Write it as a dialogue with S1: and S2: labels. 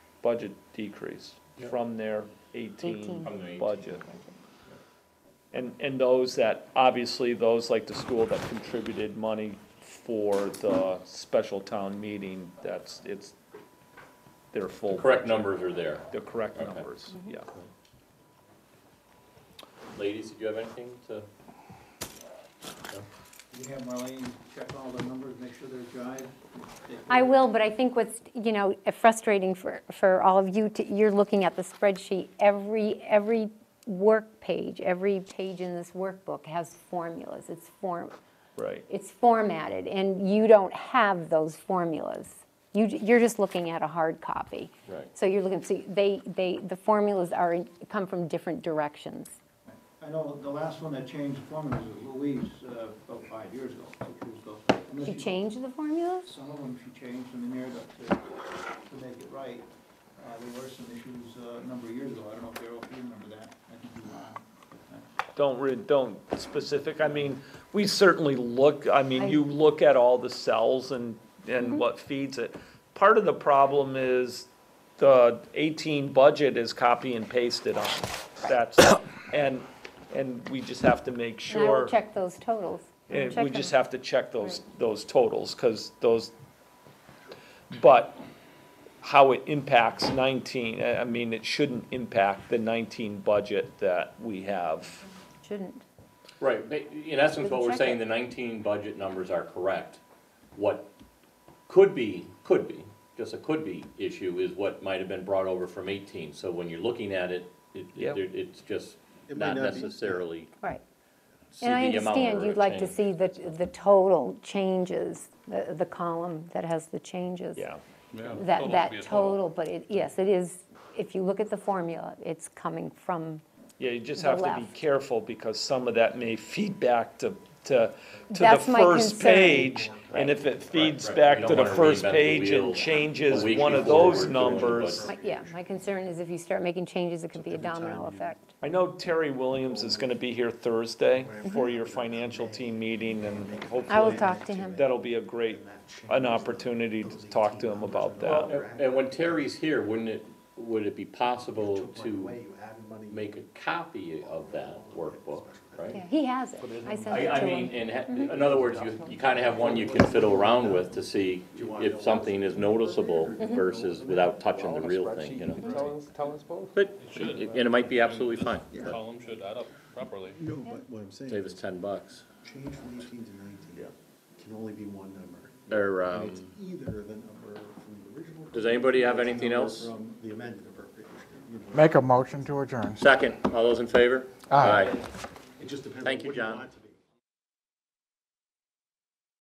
S1: budget decrease
S2: Yeah.
S1: from their
S3: Eighteen.
S1: eighteen
S2: From the 18.
S1: budget. And, and those that, obviously, those like the school that contributed money for the special town meeting, that's, it's their
S2: The
S1: full.
S2: correct numbers are there.
S1: The correct
S2: Okay.
S1: numbers, yeah.
S2: Ladies, did you have anything to?
S4: You have Marlene check all the numbers, make sure they're jive.
S3: I will, but I think what's, you know, frustrating for, for all of you, to- you're looking at the spreadsheet, every, every work page, every page in this workbook has formulas, it's form,
S1: Right,
S3: it's formatted, and you don't have those formulas. You, j- you're just looking at a hard copy.
S2: Right.
S3: So you're looking, see, they, they, the formulas are, in- come from different directions.
S4: I know the last one that changed formulas was Louise, uh, about five years ago, six years ago. Unless
S1: Mm-hmm.
S3: She changed the formulas?
S4: Some of them she changed them in there to, to to make it right. Uh, there were some issues uh, a number of years ago, I don't know if Daryl, if you remember that. I think you, uh,
S1: don't re, don't specific, I mean, we certainly look, I
S3: I- Mm-hmm.
S1: mean, you look at all the cells and, and what feeds it. Part of the problem is the eighteen budget is copy and pasted on, that's, and, and we just have to make
S3: And I will
S1: sure.
S3: check those totals. I will
S1: And we
S3: check
S1: just
S3: them.
S1: have to check those, those totals, because those, but how it impacts nineteen, I, I mean, it shouldn't impact the nineteen budget that we have.
S3: Shouldn't.
S2: Right, but in essence, what we're
S3: Check
S2: saying,
S3: it.
S2: the nineteen budget numbers are correct. What could be, could be, just a could be issue is what might have been brought over from eighteen. So when you're looking at it, it,
S1: Yep.
S2: it- it's just
S4: It
S2: not
S4: might not be-
S2: necessarily
S3: Right.
S2: see
S3: And I
S2: the amount
S3: understand
S2: or
S3: you'd
S2: a
S3: like to
S2: change.
S3: see the, the total changes, the, the column that has the changes.
S1: Yeah,
S3: That, that total, but it, yes, it is, if you look at the formula, it's coming from,
S1: yeah, you just
S3: The
S1: have to be
S3: left.
S1: careful, because some of that may feed back to, to, to the
S3: That's my
S1: first
S3: concern.
S1: page. And if it feeds
S2: right.
S1: back
S2: You
S1: to
S2: don't
S1: the
S2: wanna
S1: first
S2: reinvent the
S1: page
S2: wheel
S1: and
S2: a
S1: changes
S2: week
S1: one of
S2: before we're
S1: those
S2: doing the budget.
S1: numbers.
S3: my- yeah, my concern is if you start making changes, it could be a domino effect.
S1: I know Terry Williams is gonna be here Thursday for your financial team meeting, and hopefully.
S3: Mm-hmm. I will talk to him.
S1: That'll be a great, an opportunity to talk to him about
S2: Well,
S1: that.
S2: Uh, and- And when Terry's here, wouldn't it, would it be possible to make a copy of that workbook,
S3: Yeah,
S2: right?
S3: he has it. I sent
S2: I,
S3: it
S2: I
S3: to
S2: mean, in,
S3: him.
S2: ha- in other words, you, you kind of have one you can fiddle around with to see if something is noticeable versus without touching the real thing, you know?
S1: Mm-hmm.
S5: Tell us, tell us both.
S2: But, and it might be absolutely fine. but
S6: column should add up properly.
S5: No, but what I'm saying
S2: Save us
S5: is,
S2: ten bucks.
S5: change from eighteen to nineteen can only be one number.
S2: Or,
S5: And it's
S2: um,
S5: either the number from the original.
S2: Does anybody have
S5: or it's the
S2: anything
S5: number
S2: else?
S5: From the amended appropriation. you know.
S7: Make a motion to adjourn.
S2: second, all those in favor?
S7: Aye.
S5: It just depends on
S2: Thank you,
S5: what you
S2: John.
S5: want to